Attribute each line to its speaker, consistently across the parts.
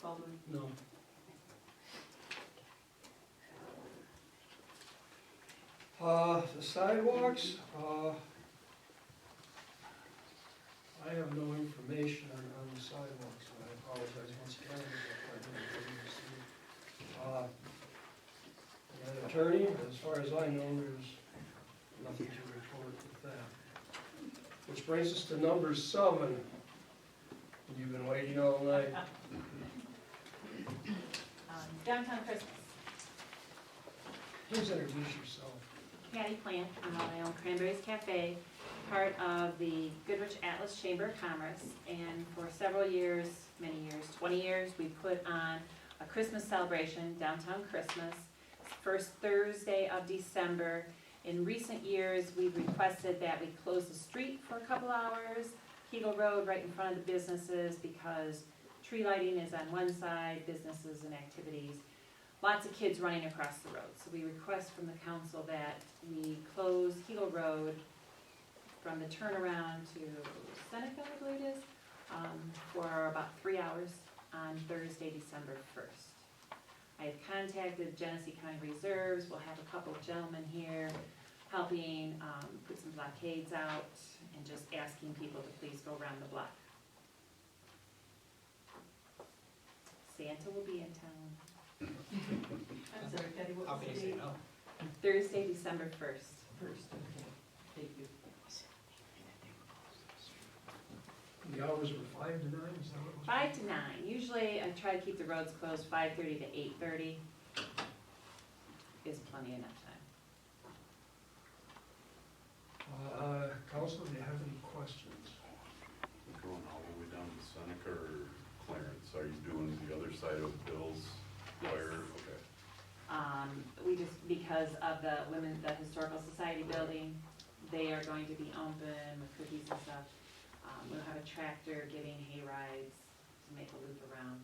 Speaker 1: Baldwin?
Speaker 2: No. Uh, the sidewalks, uh, I have no information on, on the sidewalks, and I apologize once again if I didn't bring this in. Uh, An Uh, attorney, as far as I know, there's nothing to report with that. Which brings us to number seven. You've been waiting all night.
Speaker 1: Um, Downtown Christmas.
Speaker 2: Please introduce yourself.
Speaker 1: Patty Plant, um, I own Cranberries Cafe, part of the Goodrich Atlas Chamber of Commerce. And for several years, many years, twenty years, we put on a Christmas celebration, Downtown Christmas, first Thursday of December. In recent years, we've requested that we close the street for a couple hours, Kegel Road right in front of the businesses because tree lighting is on one side, businesses and activities lots of kids running across the road. So we request from the council that we close Hilo Road from the turnaround to Seneca, I believe it is, um, for about three hours on Thursday, December first. I have contacted Genesee County Reserves, we'll have a couple of gentlemen here helping, um, put some blockades out and just asking people to please go around the block. Santa will be in town.
Speaker 3: I'm sorry, Patty, what
Speaker 4: How
Speaker 3: was the
Speaker 4: can you say
Speaker 3: date?
Speaker 4: no?
Speaker 1: Thursday, December first.
Speaker 3: First, okay, thank you.
Speaker 2: The hours were five to nine, is that what it was?
Speaker 1: Five to nine, usually I try to keep the roads closed five thirty to eight thirty. Is plenty enough time.
Speaker 2: Uh, council, do you have any questions?
Speaker 5: Going all the way down to Seneca or Clarence, are you doing the other side of Bill's wire? Okay.
Speaker 1: Um, we just, because of the women, the historical society building, they are going to be open with cookies and stuff. Um, we'll have a tractor giving hay rides to make a loop around.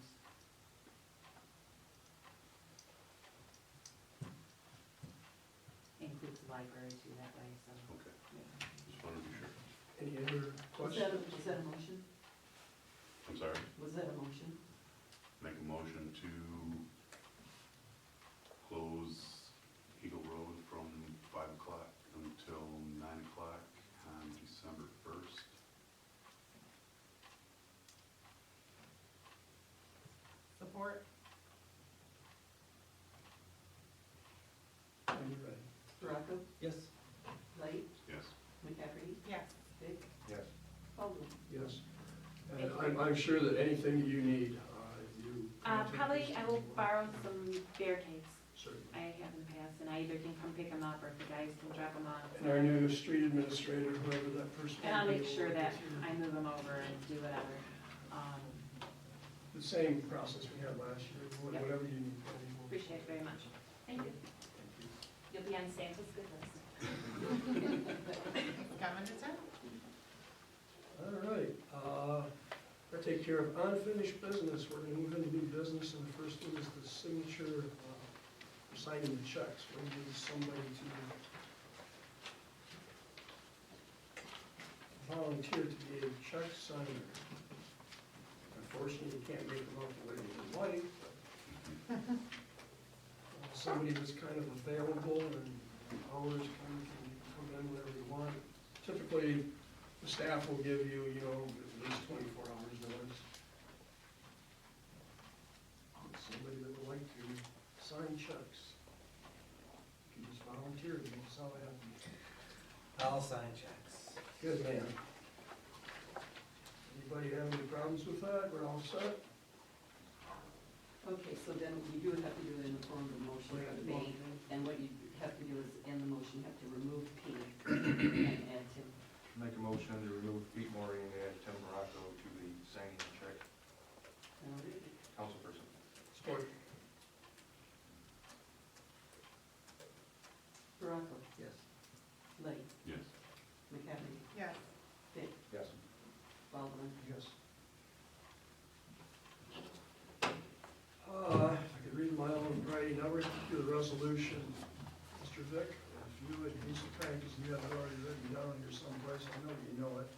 Speaker 1: Includes the library too that way, so.
Speaker 5: Okay.
Speaker 1: yeah.
Speaker 5: Just wanted to be sure.
Speaker 2: Any other
Speaker 3: Was
Speaker 2: questions?
Speaker 3: that, a- was that a motion?
Speaker 5: I'm sorry,
Speaker 3: Was that a motion?
Speaker 5: make a motion to close Eagle Road from five o'clock until nine o'clock on December first.
Speaker 3: Support.
Speaker 2: When you're ready.
Speaker 3: Baraco,
Speaker 4: Yes.
Speaker 3: Light,
Speaker 5: Yes.
Speaker 3: McCafferty?
Speaker 1: Yes.
Speaker 3: Dick?
Speaker 5: Yes.
Speaker 3: Baldwin?
Speaker 2: Yes. And I'm, I'm sure that anything that you need, uh, if you.
Speaker 1: Uh,
Speaker 2: contact
Speaker 1: probably
Speaker 2: us,
Speaker 1: I will
Speaker 2: we'll-
Speaker 1: borrow some barricades.
Speaker 2: Certainly.
Speaker 1: I have in the past, and I either can come pick them up or if the guys can drop them off.
Speaker 2: And our new street administrator, whoever that person.
Speaker 1: And I'll
Speaker 2: will be,
Speaker 1: make sure
Speaker 2: will
Speaker 1: that
Speaker 2: get you
Speaker 1: I move them over and do whatever. Um,
Speaker 2: The same process we had last year, wha-
Speaker 1: Yep.
Speaker 2: whatever you need. Patty, we'll-
Speaker 1: Appreciate it very much. Thank you.
Speaker 2: Thank you.
Speaker 1: You'll be on Santa's good list.
Speaker 2: All right, uh, I take care of unfinished business, we're gonna move into new business, and the first thing is the signature, uh, signing the checks, we need somebody to volunteer to be a check signer. Unfortunately, you can't make them up the way you'd like, but, uh, somebody that's kind of available and hours kind of can come in whenever you want. Typically, the staff will give you, you know, at least twenty-four hours notice. If Somebody that would like to sign checks. You can just volunteer, you know, that's how it happens.
Speaker 4: I'll sign checks.
Speaker 2: Good man. Anybody have any problems with that? We're all set?
Speaker 3: Okay, so then you do have to do it in the form of a motion for the bank, and what you have to do is, in the motion, have to remove P and add Tim.
Speaker 6: Make a motion to remove Pete Maury and add Tim Morocco to the signing check
Speaker 3: All right.
Speaker 6: councilperson.
Speaker 2: Support.
Speaker 3: Baraco,
Speaker 6: Yes.
Speaker 3: Light,
Speaker 5: Yes.
Speaker 3: McCafferty?
Speaker 7: Yes.
Speaker 3: Dick?
Speaker 6: Yes.
Speaker 3: Baldwin?
Speaker 2: Yes. Uh, if I could read my own writing, I would do the resolution. Mr. Vic, if you would be so kind, because you have it already written down here someplace, I know you know it.
Speaker 1: Uh,
Speaker 3: Um,